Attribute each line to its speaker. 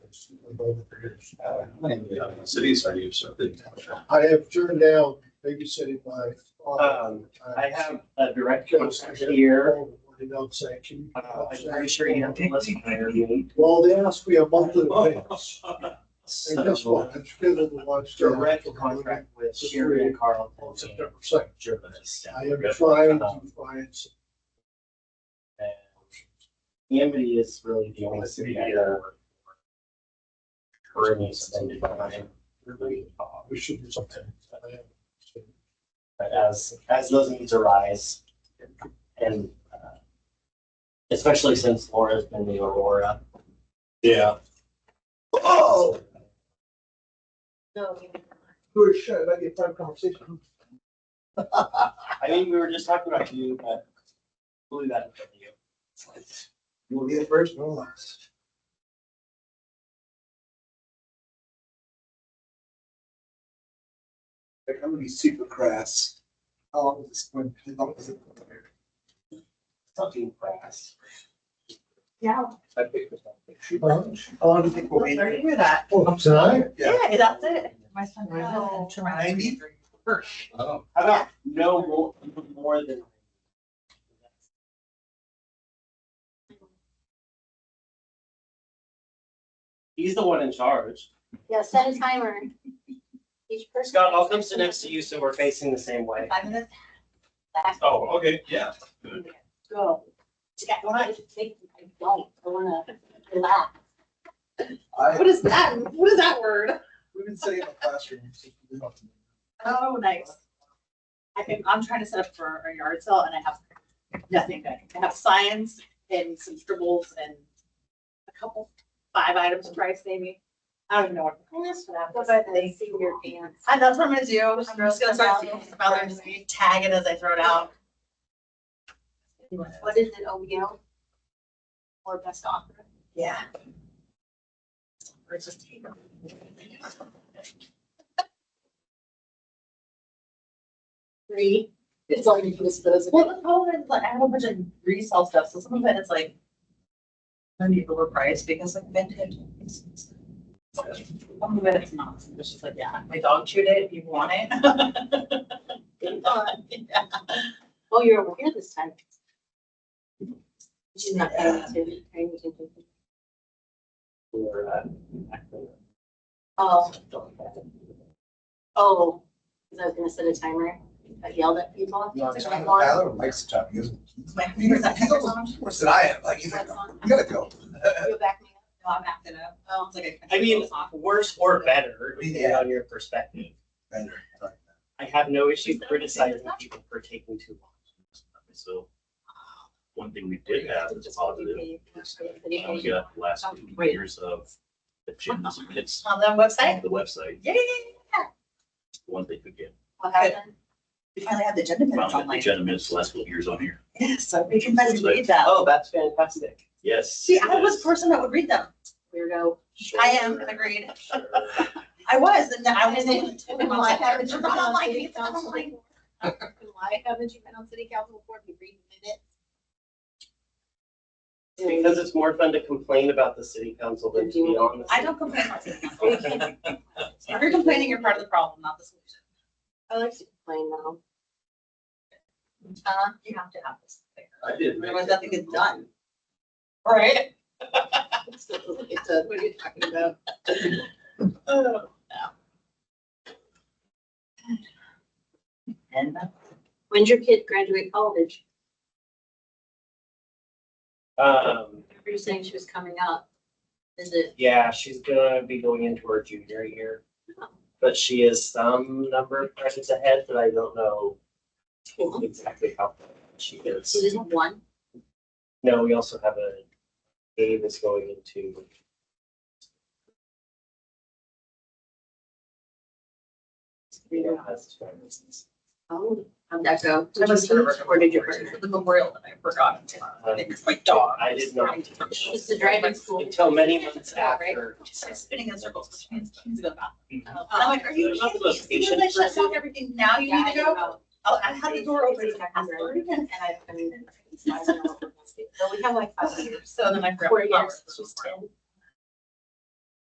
Speaker 1: years, both careers.
Speaker 2: Oh,
Speaker 1: Uh,
Speaker 3: And, uh, Cities are used, so they.
Speaker 1: I have turned down babysitting by.
Speaker 4: Um, I have a director here.
Speaker 1: They don't say, can you?
Speaker 4: Uh, I'm pretty sure you have to listen to me.
Speaker 1: Well, they asked me a monthly advance. And guess
Speaker 4: So,
Speaker 1: what? I'm still in the lunch.
Speaker 4: direct contract with Sherry
Speaker 1: On
Speaker 4: Carlton.
Speaker 1: September second.
Speaker 4: Jervis.
Speaker 1: I am trying to find some
Speaker 4: Amity is really the only city I ever. Currently suspended by. Uh,
Speaker 1: We should do something. I am-
Speaker 4: But as, as those needs arise and, uh, especially since Laura's been the Aurora.
Speaker 3: Yeah.
Speaker 1: Oh,
Speaker 5: No,
Speaker 1: who is shit? I get private conversation.
Speaker 4: I mean, we were just talking about you, but we'll leave that in front of you.
Speaker 1: You will be the first or last. I'm gonna be super crass. How long is this going? How long is it?
Speaker 4: Something fast.
Speaker 5: yeah,
Speaker 1: I picked this one. How long do you think we'll be?
Speaker 5: sorry to hear that.
Speaker 1: Oh, tonight?
Speaker 5: Yeah, that's it. My son.
Speaker 6: Oh.
Speaker 5: Ninety?
Speaker 3: Oh,
Speaker 4: How about no more, more than? He's the one in charge.
Speaker 6: Yeah, set a timer. Each person.
Speaker 4: Scott, I'll come sit next to you so we're facing the same way.
Speaker 6: Five minutes.
Speaker 3: oh, okay, yeah.
Speaker 6: Go. Yeah, I wanna think, I don't, I wanna relax.
Speaker 5: What is that? What is that word?
Speaker 1: We've been sitting in the classroom.
Speaker 5: Oh, nice. I think, I'm trying to set up for a yard sale and I have nothing good. I have science and some scribbles and a couple, five items of rice maybe. I don't even know what.
Speaker 6: I asked for that.
Speaker 5: Go by the
Speaker 6: See your pants.
Speaker 5: And that's what I'm gonna do. I'm just gonna start seeing this about, I'm just gonna tag it as I throw it out.
Speaker 6: What is it, OBO? Or best offer?
Speaker 5: Yeah.
Speaker 6: Three. It's only for disposable.
Speaker 5: Well, the problem is like I have a bunch of resale stuff, so some of it is like. I need overpriced because like vintage. is expensive. Some of it is not, it's just like, yeah, my dog chewed it, if you want it. Good God, yeah.
Speaker 6: Oh, you're over here this time. She's not paying attention. paying attention.
Speaker 4: Or, uh,
Speaker 6: Oh, oh, because I was gonna set a timer. I yelled at people.
Speaker 7: No,
Speaker 6: It's like, "Lauren,
Speaker 7: Tyler likes to talk music.
Speaker 5: My
Speaker 7: He's
Speaker 5: fingers are-
Speaker 7: almost worse than I am, like, he's like,
Speaker 6: what's on?"
Speaker 7: we gotta go.
Speaker 6: You back me up.
Speaker 5: No, I'm acting up. Oh, it's like a-
Speaker 4: I mean, worse or better, depending on your perspective.
Speaker 7: And, uh,
Speaker 4: I have no issue criticizing people for taking too long.
Speaker 2: So one thing we did have that's positive, uh, we
Speaker 6: It's
Speaker 2: got the last two years of the gyms and hits
Speaker 5: On the website?
Speaker 2: on the website,
Speaker 5: Yeah.
Speaker 2: one they could get.
Speaker 6: What happened?
Speaker 5: We finally have the agenda minutes
Speaker 2: Found that
Speaker 5: online.
Speaker 2: the gentleman is the last couple of years on here.
Speaker 5: Yes, so we can finally read them.
Speaker 4: Oh, that's fantastic.
Speaker 2: Yes.
Speaker 5: See, I
Speaker 2: it
Speaker 5: was
Speaker 2: is.
Speaker 5: the person that would read them.
Speaker 6: Weirdo.
Speaker 5: I am, agreed.
Speaker 2: Sure.
Speaker 5: I was, and then I was.
Speaker 6: Why haven't you been
Speaker 5: I don't
Speaker 6: on
Speaker 5: like
Speaker 6: city
Speaker 5: it, I don't
Speaker 6: council?
Speaker 5: like it.
Speaker 6: Why haven't you been on city council before? We read minutes.
Speaker 4: Because it's more fun to complain about the city council than to be on the.
Speaker 5: I don't complain about city
Speaker 6: We
Speaker 5: council.
Speaker 6: can't-
Speaker 5: If you're complaining, you're part of the problem, not the solution.
Speaker 6: I like to complain though.
Speaker 5: Uh, you have to have this. thing.
Speaker 3: I did. make
Speaker 5: Otherwise,
Speaker 3: it.
Speaker 5: nothing is done. Right?
Speaker 6: It's a- it's a- What are you talking about?
Speaker 5: Oh, And uh,
Speaker 6: When's your kid graduate college?
Speaker 4: Um,
Speaker 6: Remember you saying she was coming up. Is it?
Speaker 4: yeah, she's gonna be going into her junior year, but she is some number of credits ahead, but I don't know exactly how she
Speaker 6: She
Speaker 4: is.
Speaker 6: just one?
Speaker 4: No, we also have a, Dave is going into. Yeah, that's two reasons.
Speaker 6: Oh, how'd that
Speaker 5: I
Speaker 6: go? Did you
Speaker 5: was sort of
Speaker 6: teach or did you
Speaker 5: for the memorial that I forgot. to- It's my dog.
Speaker 4: I did not teach.
Speaker 6: Just the driving school.
Speaker 4: Until many months
Speaker 5: Yeah, right.
Speaker 4: after.
Speaker 5: She started spinning in circles, which means she's gonna go.
Speaker 4: Mhm.
Speaker 5: And I'm like, are you
Speaker 4: There's not the
Speaker 5: kidding me?
Speaker 4: most
Speaker 5: See, you
Speaker 4: patient
Speaker 5: like, shut
Speaker 4: person.
Speaker 5: down everything. Now you need to go. Oh, I had the door open. and I passed it over again.
Speaker 6: And I, I mean, I don't know. So we have like five years,
Speaker 5: So then I forgot.
Speaker 6: four
Speaker 5: flowers.
Speaker 6: years, she's ten.